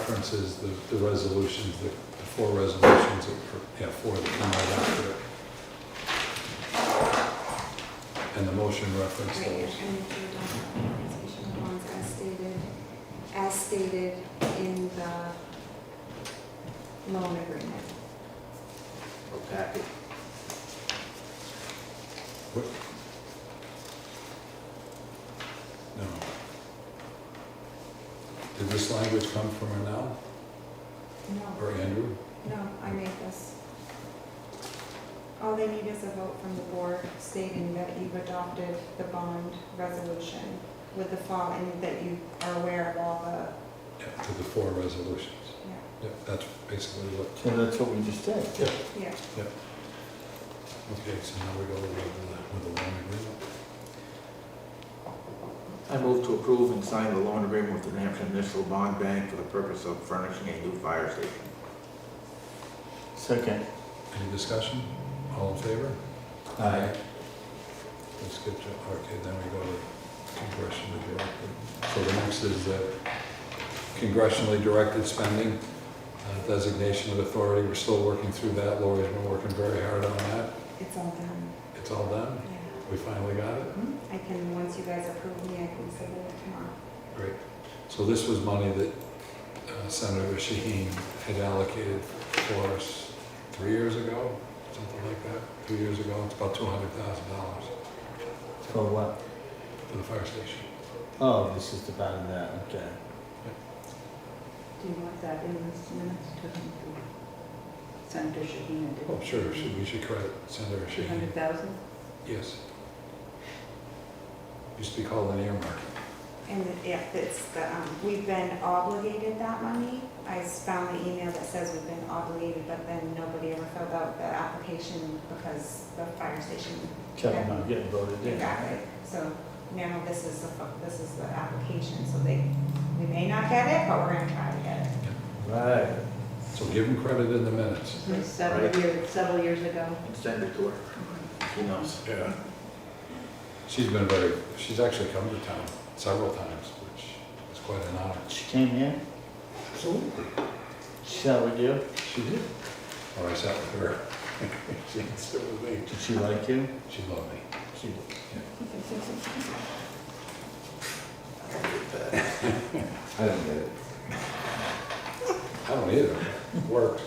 references the, the resolutions, the the four resolutions, that per- yeah, four that come right after it. And the motion reference Right, those. and if you adopt the compensation bonds as stated, as stated in the loan agreement. or packet. What? No. Did this language come from Arnell or No, Andrew? no, I made this. All they need is a vote from the board stating that you've adopted the bond resolution with the fall, and that you are aware of all Yeah, to the four resolutions. Yeah, that's basically what, So that's what we just did. the, yeah, okay, so now we go with the, with the loan agreement. I move to approve and sign the loan agreement with the New Hampshire Municipal Bond Bank for the purpose of furnishing a new fire station. Second. Any discussion? All in favor? Aye. Let's get to, okay, then we go to congressionally directed. So the next is the congressionally directed spending, uh, designation of authority. We're still working through that. Lori's been working very hard on that. it's all done, It's all done. yeah. We finally got it. I can, once you guys approve me, I can submit it tomorrow. Great. So this was money that uh, Senator Shaheen had allocated for us three years ago, something like that, two years ago. It's about $200,000 For what? for the fire station. Oh, this is the bottom of that, okay. Do you want that in this minutes to Senator Shaheen? Oh, sure, should- we should credit Senator Two Shaheen. hundred thousand? Yes. Used to be called an earmark. And if it's the, um, we've been obligated that money, I found the email that says we've been obligated, but then nobody ever filled out the application because the fire station Kevin, I'm getting voted in. got it. So now this is the, fu- this is the application, so they, we may not get it, but we're gonna try to get it. Right. So give him credit in the minutes. Right. Several years, several years ago. And send it to her. Who knows? Yeah. She's been very, she's actually come to town several times, which is quite an honor. She came here, Absolutely. she sat with you, She did. Or I sat with her. She didn't sit with me. did she like you? She loved me. She did. I don't get it. I don't either. Worked.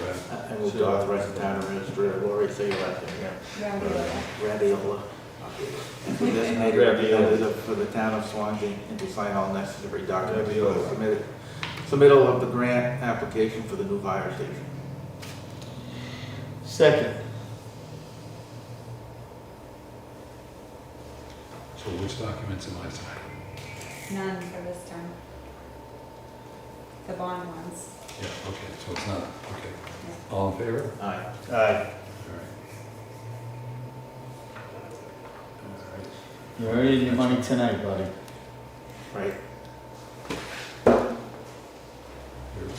Right. I I move to authorize the town administrator, Lori, say your last name, yeah. Yeah, we will. Radiola. For this made representative for the town of Swansea and to sign all necessary documents for the Radiola. submitted, submittal of the grant application for the new fire station. Second. So which documents am I signing? None for this time. The bond ones. Yeah, okay, so it's not, okay. All in favor? Aye. Aye. All right. You're already in your money tonight, buddy. Right. All right.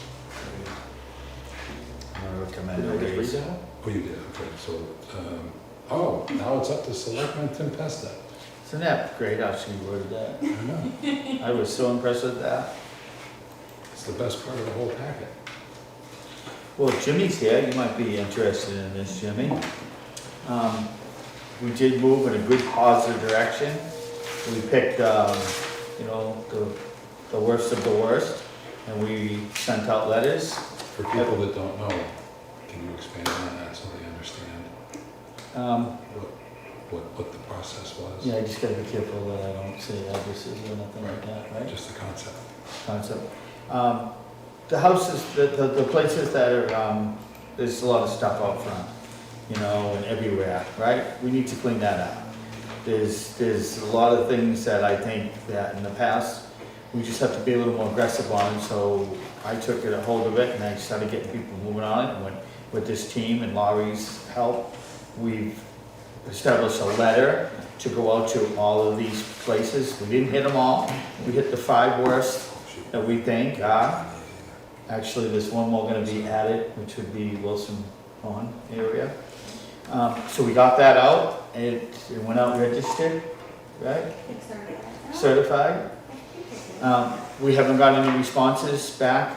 I recommend Did a I just read raise. that one? Oh, you did, okay, so, um, oh, now it's up to Selectman Tempesta. It's an app, great how she worded that. I know, I was so impressed with that. it's the best part of the whole packet. Well, Jimmy's here, you might be interested in this, Jimmy. Um, we did move in a good positive direction. We picked, um, you know, the, the worst of the worst, and we sent out letters. For people that don't know, can you expand on that so they understand Um, what, what, what the process was? yeah, I just gotta be careful that I don't say addresses or nothing like that, right? Just the concept. Concept. Um, the houses, the, the, the places that are, um, there's a lot of stuff out front, you know, and everywhere, right? We need to clean that up. There's, there's a lot of things that I think that in the past, we just have to be a little more aggressive on, so I took it a hold of it and I started getting people moving on it, and with, with this team and Laurie's help, we've established a letter to go out to all of these places. We didn't hit them all, we hit the five worst Shoot. that we think are, Actually, there's one more gonna be added, which would be Wilson Pond area. Um, so we got that out, it, it went out registered, right, It's already- certified, I think it is. Um, we haven't got any responses back